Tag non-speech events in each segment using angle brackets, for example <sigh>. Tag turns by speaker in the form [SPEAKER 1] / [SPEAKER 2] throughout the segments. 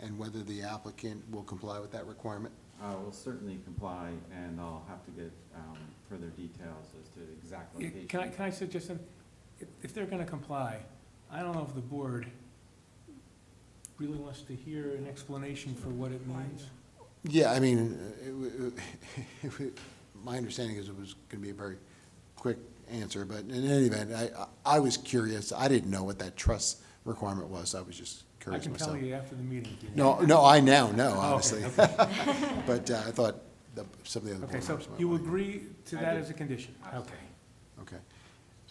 [SPEAKER 1] and whether the applicant will comply with that requirement?
[SPEAKER 2] I will certainly comply, and I'll have to get um, further details as to the exact
[SPEAKER 3] Yeah,
[SPEAKER 2] location.
[SPEAKER 3] Can I, can I suggest, something? if, if they're gonna comply, I don't know if the board really wants to hear an explanation for what it means.
[SPEAKER 1] Yeah, I mean, uh, it w- <laughs> it w- my understanding is it was going to be a very quick answer, but in any event, I, I was curious. I didn't know what that trust requirement was. I was just
[SPEAKER 3] I
[SPEAKER 1] curious
[SPEAKER 3] can tell
[SPEAKER 1] myself.
[SPEAKER 3] you after the meeting. if you want.
[SPEAKER 1] No, no, I now know,
[SPEAKER 3] Oh, <laughs>
[SPEAKER 1] obviously.
[SPEAKER 3] okay, okay.
[SPEAKER 1] <laughs> But uh, I thought the- some of the other
[SPEAKER 3] Okay,
[SPEAKER 1] board
[SPEAKER 3] so
[SPEAKER 1] members might
[SPEAKER 3] you
[SPEAKER 1] want to-
[SPEAKER 3] agree to
[SPEAKER 2] I
[SPEAKER 3] that
[SPEAKER 2] do.
[SPEAKER 3] as a condition? Okay.
[SPEAKER 2] Absolutely.
[SPEAKER 1] Okay.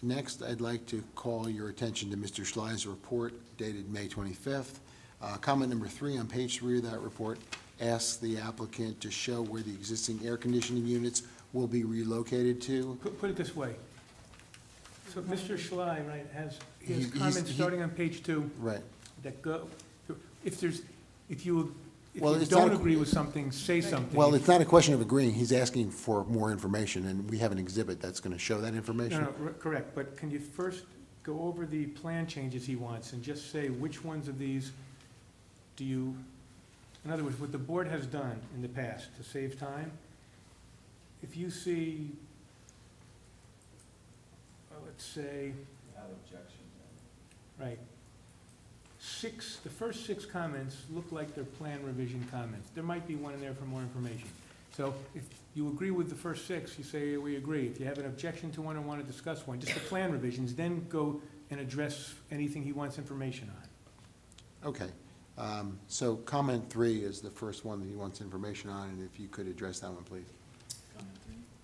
[SPEAKER 1] Next, I'd like to call your attention to Mr. Schley's report dated May 25th. Uh, Comment number three on page three of that report asks the applicant to show where the existing air conditioning units will be relocated to.
[SPEAKER 3] Put, put it this way. So Mr. Schley, right, has, he has
[SPEAKER 1] He- he's-
[SPEAKER 3] comments
[SPEAKER 1] he-
[SPEAKER 3] starting on page two
[SPEAKER 1] Right.
[SPEAKER 3] that go, if there's, if you, if
[SPEAKER 1] Well,
[SPEAKER 3] you
[SPEAKER 1] it's not
[SPEAKER 3] don't
[SPEAKER 1] a-
[SPEAKER 3] agree with something, say something.
[SPEAKER 1] Well, it's not a question of agreeing, he's asking for more information, and we have an exhibit that's going to show that
[SPEAKER 3] No,
[SPEAKER 1] information.
[SPEAKER 3] no, r- correct, but can you first go over the plan changes he wants and just say which ones of these do you, in other words, what the board has done in the past to save time, if you see, uh, let's say,
[SPEAKER 2] Without objection.
[SPEAKER 3] right, six, the first six comments look like they're plan revision comments. There might be one in there for more information. So if you agree with the first six, you say, we agree. If you have an objection to one or want to discuss one, just the plan revisions, then go and address anything he wants information on.
[SPEAKER 1] Okay. Um, So comment three is the first one that he wants information on, and if you could address that one, please.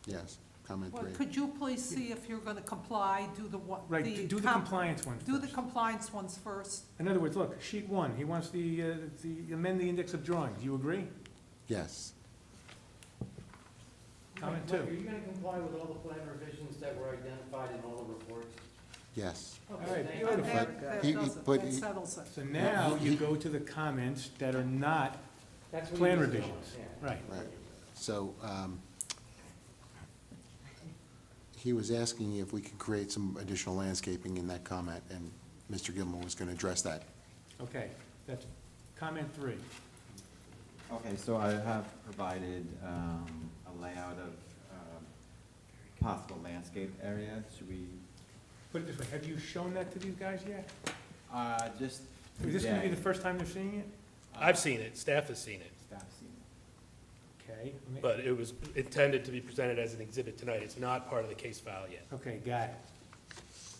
[SPEAKER 1] Yes, comment
[SPEAKER 4] Well,
[SPEAKER 1] three.
[SPEAKER 4] could you please see if you're gonna comply, do the one, the.
[SPEAKER 3] Right, do the
[SPEAKER 4] com-
[SPEAKER 3] compliance one
[SPEAKER 4] Do the
[SPEAKER 3] first.
[SPEAKER 4] compliance ones first.
[SPEAKER 3] In other words, look, sheet one, he wants the, uh, the, amend the index of drawings. You agree?
[SPEAKER 1] Yes.
[SPEAKER 3] Comment
[SPEAKER 5] Mike, Are
[SPEAKER 3] two.
[SPEAKER 5] you gonna comply with all the plan revisions that were identified in all the reports?
[SPEAKER 1] Yes.
[SPEAKER 5] Okay,
[SPEAKER 3] right,
[SPEAKER 5] thank you.
[SPEAKER 3] beautiful.
[SPEAKER 4] That, that
[SPEAKER 1] He- he-
[SPEAKER 4] does it,
[SPEAKER 1] but
[SPEAKER 4] that
[SPEAKER 1] he-
[SPEAKER 4] settles it.
[SPEAKER 3] So now you go to the comments that are not
[SPEAKER 5] That's what
[SPEAKER 3] plan
[SPEAKER 5] you just told
[SPEAKER 3] revisions.
[SPEAKER 5] us, yeah.
[SPEAKER 3] Right.
[SPEAKER 1] Right. So um, he was asking if we could create some additional landscaping in that comment, and Mr. Gilmore was going to address that.
[SPEAKER 3] Okay, that's comment three.
[SPEAKER 2] Okay, so I have provided um, a layout of um, possible landscape area. Should we,
[SPEAKER 3] Put it this way, have you shown that to these guys yet?
[SPEAKER 2] uh, just.
[SPEAKER 3] Is this gonna be the
[SPEAKER 2] today,
[SPEAKER 3] first time they're seeing it?
[SPEAKER 6] I've seen it, staff has seen it,
[SPEAKER 2] staff seen it.
[SPEAKER 3] Okay. let me-
[SPEAKER 6] but it was intended to be presented as an exhibit tonight. It's not part of the case file yet.
[SPEAKER 3] Okay, got it.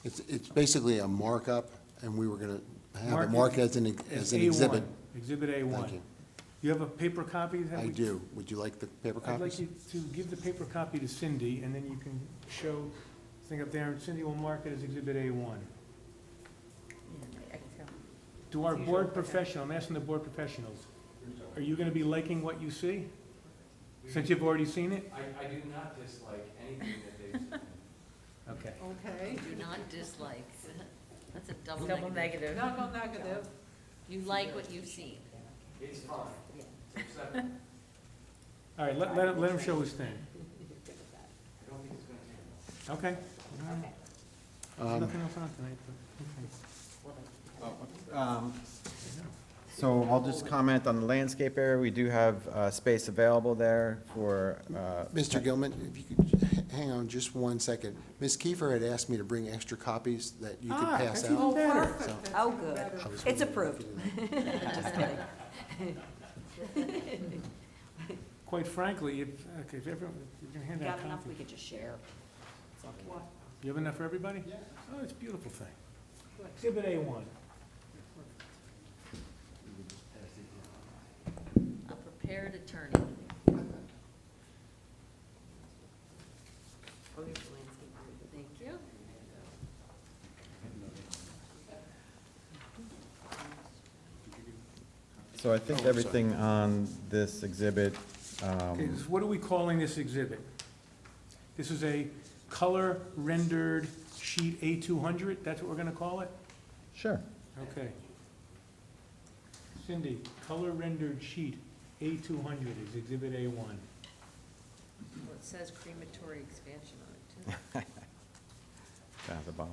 [SPEAKER 1] It's, it's basically a markup, and we were going to have
[SPEAKER 3] Mark
[SPEAKER 1] it
[SPEAKER 3] it
[SPEAKER 1] marked as an, as
[SPEAKER 3] It's
[SPEAKER 1] an exhibit.
[SPEAKER 3] A1, Exhibit
[SPEAKER 1] Thank
[SPEAKER 3] A1.
[SPEAKER 1] you.
[SPEAKER 3] You have a paper copy? that
[SPEAKER 1] I
[SPEAKER 3] we-
[SPEAKER 1] do. Would you like the paper
[SPEAKER 3] I'd like
[SPEAKER 1] copies?
[SPEAKER 3] you to give the paper copy to Cindy, and then you can show the thing up there, and Cindy will mark it as exhibit A1. To our board professional, I'm asking the board professionals, are you gonna be liking what you see? Since you've already seen it?
[SPEAKER 5] I, I do not dislike anything that they've submitted.
[SPEAKER 3] Okay.
[SPEAKER 4] Okay,
[SPEAKER 7] Do not dislike. That's a double
[SPEAKER 8] Double
[SPEAKER 7] negative.
[SPEAKER 8] negative.
[SPEAKER 4] double negative,
[SPEAKER 7] You like what you've seen.
[SPEAKER 5] It's fine.
[SPEAKER 7] Yeah.
[SPEAKER 5] It's acceptable.
[SPEAKER 3] All right, let, let him, let him show his thing.
[SPEAKER 5] I don't think it's gonna take long.
[SPEAKER 3] Okay? All right.
[SPEAKER 1] Um,
[SPEAKER 3] Nothing else on tonight, but, okay.
[SPEAKER 2] Um, So I'll just comment on the landscape area. We do have uh, space available there for. uh,
[SPEAKER 1] Mr. Gilman, if you could, j- hang on just one second. Ms. Kiefer had asked me to bring extra copies that you could
[SPEAKER 3] Ah,
[SPEAKER 1] pass
[SPEAKER 3] that's even
[SPEAKER 1] out.
[SPEAKER 3] better.
[SPEAKER 4] perfect. that's
[SPEAKER 8] <laughs> Oh,
[SPEAKER 4] even
[SPEAKER 8] good.
[SPEAKER 4] better.
[SPEAKER 1] I was
[SPEAKER 8] It's
[SPEAKER 1] wondering if
[SPEAKER 8] approved.
[SPEAKER 1] you
[SPEAKER 8] <laughs>
[SPEAKER 1] did that.
[SPEAKER 8] Just kidding.
[SPEAKER 3] Quite frankly, if, okay, if everyone, you can hand out
[SPEAKER 8] Got enough, we
[SPEAKER 3] copies.
[SPEAKER 8] could just share. It's okay.
[SPEAKER 4] What?
[SPEAKER 3] You have enough for everybody? Yeah. Oh, it's a beautiful thing. Exhibit A one.
[SPEAKER 7] A prepared attorney. Oh, here's the landscape. Thank you.
[SPEAKER 2] So I think everything on this exhibit.
[SPEAKER 3] Okay,
[SPEAKER 2] um,
[SPEAKER 3] so what are we calling this exhibit? This is a color rendered sheet A two hundred, that's what we're gonna call it?
[SPEAKER 2] Sure.
[SPEAKER 3] Okay. Cindy, color rendered sheet A two hundred is exhibit A one.
[SPEAKER 7] Well, it says crematory expansion on it, too.
[SPEAKER 2] Down at the bottom.